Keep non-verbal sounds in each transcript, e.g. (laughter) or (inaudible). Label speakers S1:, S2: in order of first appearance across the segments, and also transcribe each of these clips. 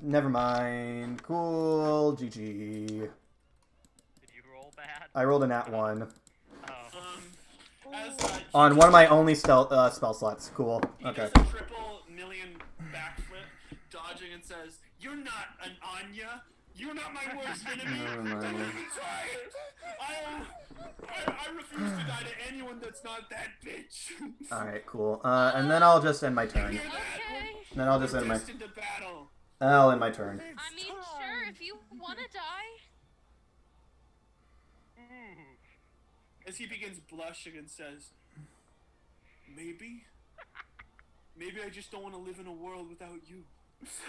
S1: Never mind. Cool. GG.
S2: Did you roll bad?
S1: I rolled a nat one
S2: Oh.
S3: Um, as, uh,
S1: on
S3: he
S1: one of my
S3: does-
S1: only spell uh, spell slots. Cool.
S3: He
S1: Okay.
S3: does a triple million backflip, dodging, and says, "You're not an Anya. You're not my
S1: (laughs)
S3: worst enemy.
S1: Never
S3: Don't
S1: mind.
S3: even try it. I, I, I refuse to die to anyone that's not that bitch.
S1: All right. Cool. Uh, and then I'll just end my turn.
S3: Hear that?
S4: Okay.
S1: Then I'll just
S3: We're
S1: end my.
S3: destined to battle.
S1: I'll end my turn. (laughs)
S4: I mean, sure, if you want to die.
S2: Ooh.
S3: As he begins blushing and says, "Maybe, maybe I just don't want to live in a world without you."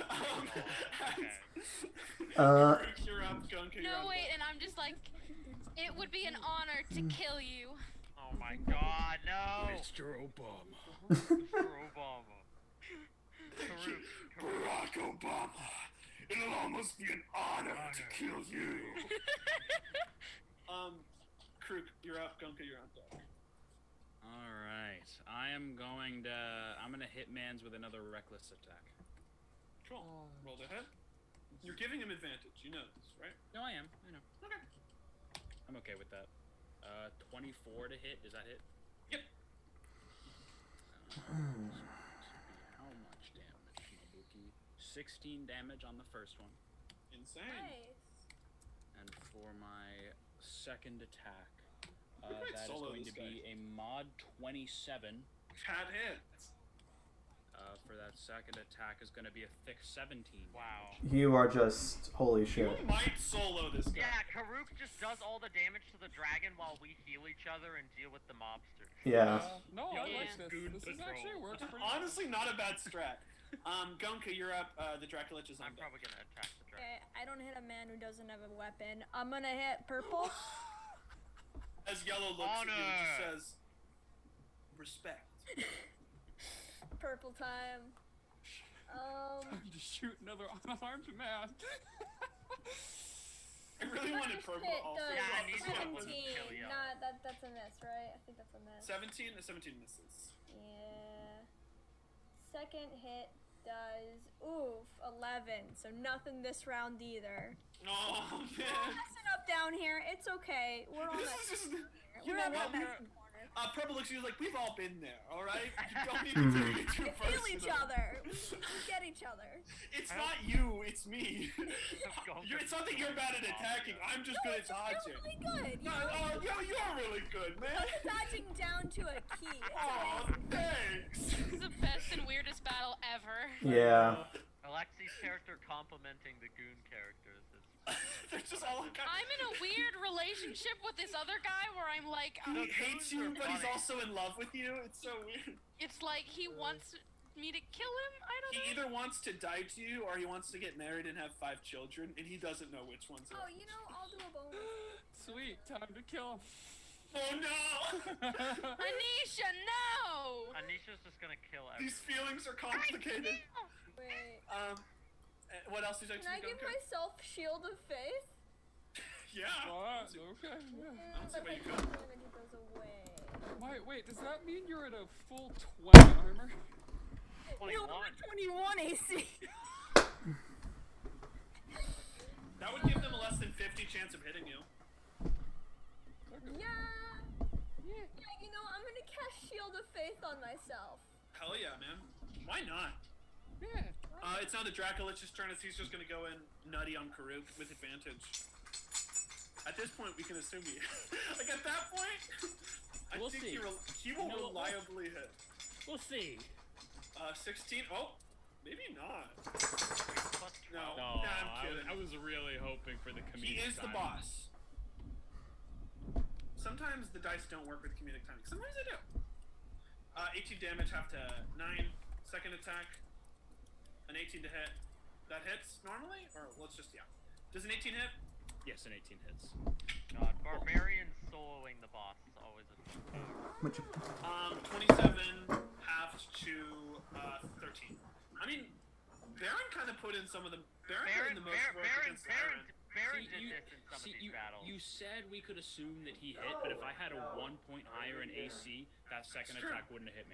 S3: um,
S2: okay.
S3: (laughs)
S1: Uh,
S3: you're up, Gunka. You're
S4: No,
S3: up.
S4: wait, and I'm just like, it would be an honor to kill you.
S2: Oh my god, no!
S5: Mr. Obama.
S2: Mr. Obama. Karuk, Karuk.
S3: Barack Obama, it'll almost be an honor to kill you. um, Kruk, you're up. Gunka, you're on deck.
S5: All right. I am going to. I'm going to hit Mans with another reckless attack.
S3: Cool. Roll the head. You're giving him advantage. You know this, right?
S5: No, I am. I know. Okay. I'm okay with that. Uh, 24 to hit. Does that hit?
S3: Yep.
S5: Uh, How much damage, Mabuki? 16 damage on the first one.
S3: Insane.
S5: And for my second attack, uh,
S3: might
S5: that is
S3: solo
S5: going
S3: this
S5: to be a mod 27.
S3: Pat hits.
S5: Uh, for that second attack is going to be a thick 17.
S2: Wow.
S1: you are just holy
S3: You
S1: shit.
S3: might solo this guy.
S2: Yeah, Karuk just does all the damage to the dragon while we heal each other and deal with the mobster.
S1: Yeah.
S6: no, I
S4: Yeah.
S6: like
S2: Goon
S6: this. This is
S2: control.
S6: actually works pretty well.
S3: Honestly, not a
S7: (laughs)
S3: bad strat. Um, Gunka, you're up. Uh, the Draculich is on
S2: I'm
S3: deck.
S2: probably gonna attack the dragon.
S7: Okay, I don't hit a man who doesn't have a weapon. I'm gonna hit purple.
S3: As Yellow looks at you and
S2: Honor.
S3: just says,
S7: (laughs)
S3: "Respect."
S7: purple time.
S3: (laughs)
S7: Um,
S6: You just shoot another unarmed man.
S3: I really
S7: what
S3: wanted
S7: is
S3: purple.
S7: it?
S3: also.
S7: The
S2: Yeah, I need that one to
S7: 17.
S2: kill you.
S7: Nah, that, that's a miss, right? I think that's a miss.
S3: 17 or 17 misses.
S7: Yeah. Second hit does oof 11, so nothing this
S3: (laughs)
S7: round either.
S3: Oh
S7: We're
S3: man.
S7: messing up down here. It's okay. We're all
S3: This is just
S7: messing here.
S3: you
S7: We're
S3: know
S7: all
S3: what?
S7: messing
S3: We're-
S7: corner.
S3: uh, purple looks at you like we've all been there, all
S7: (laughs)
S3: right? You don't even take it too
S7: We feel each
S3: personal.
S7: other. We, we get each other.
S3: (laughs) It's not you, it's
S2: (laughs)
S3: me.
S2: Gunka
S3: You're, it's not that
S2: just
S3: you're
S2: joined
S3: bad at
S2: the mobster.
S3: attacking. I'm just
S7: No,
S3: good at
S7: it's just
S3: dodging.
S7: really good. You
S3: No,
S7: know?
S3: oh, yo, you're really good, man.
S7: Look at dodging down to a key. It's
S3: Oh,
S7: amazing.
S3: thanks. (laughs)
S4: This is the best and weirdest battle ever.
S1: Yeah.
S2: Alexi's character complimenting the goon characters. It's-
S3: They're just all kind of,
S4: I'm in
S3: (laughs)
S4: a weird relationship with this other guy where I'm like,
S3: He
S4: uh,
S3: hates you, but he's
S2: funny.
S3: also in love with you. It's so weird.
S4: it's like he wants me to kill him. I don't
S3: He
S4: know.
S3: either wants to die to you, or he wants to get married and have five children, and he doesn't know which one's
S7: Oh,
S3: it.
S7: you know, I'll do a bonus.
S6: Sweet, time to kill
S3: Oh no! (laughs)
S6: him.
S4: Anisha, no!
S2: Anisha's just gonna kill
S3: These
S2: everyone.
S3: feelings are complicated.
S7: Wait.
S3: Um, uh, what else did I
S7: Can I give myself shield of faith?
S3: Yeah.
S6: Alright, okay. yeah.
S3: That's the
S7: Mm, but
S3: way
S7: I
S3: you
S7: think
S3: go.
S7: I'm gonna do those away.
S6: Wait, wait, does that mean you're at a full 20 armor?
S7: No, I'm
S2: Twenty-one.
S7: at 21 (laughs) AC.
S3: That would give them a less than 50 chance of hitting you.
S7: yeah. Yeah, you know, I'm gonna cast shield of faith on myself.
S3: Hell yeah, man. Why not?
S6: Yeah.
S3: Uh, it's now the Dracolich's turn as he's just gonna go in nutty on Karuk with advantage. At this point, we can assume he. (laughs) like at that point, I
S5: We'll
S3: think
S5: see.
S3: he, rel he will
S5: No, we'll-
S3: reliably hit.
S5: We'll see.
S3: Uh, 16. Oh, maybe not.
S2: Plus
S3: No. Nah, I'm
S5: No, I, was,
S3: kidding.
S5: I was really hoping for the comedic.
S3: He is the
S5: timing.
S3: boss. Sometimes the dice don't work with comedic timing. Sometimes they do. Uh, 18 damage, half to 9. Second attack. An 18 to hit. That hits normally? Or let's just, yeah. Does an 18 hit?
S5: Yes, an 18 hits.
S2: God, barbarian uh, soloing the boss is always a
S1: Which-
S3: Um, 27, half to uh, 13. I mean, Baron kind of put in some of the. Baron, put in
S2: Baron,
S3: the most
S2: Baron,
S3: work
S2: Baron,
S3: against
S2: Baron,
S3: Iron.
S2: Baron
S5: See,
S2: did
S5: you-
S2: this in some
S5: see,
S2: of these
S5: you,
S2: battles.
S5: you said we could assume that he hit, but if I had a one point higher in AC, that second
S3: Sure.
S5: attack wouldn't have hit me.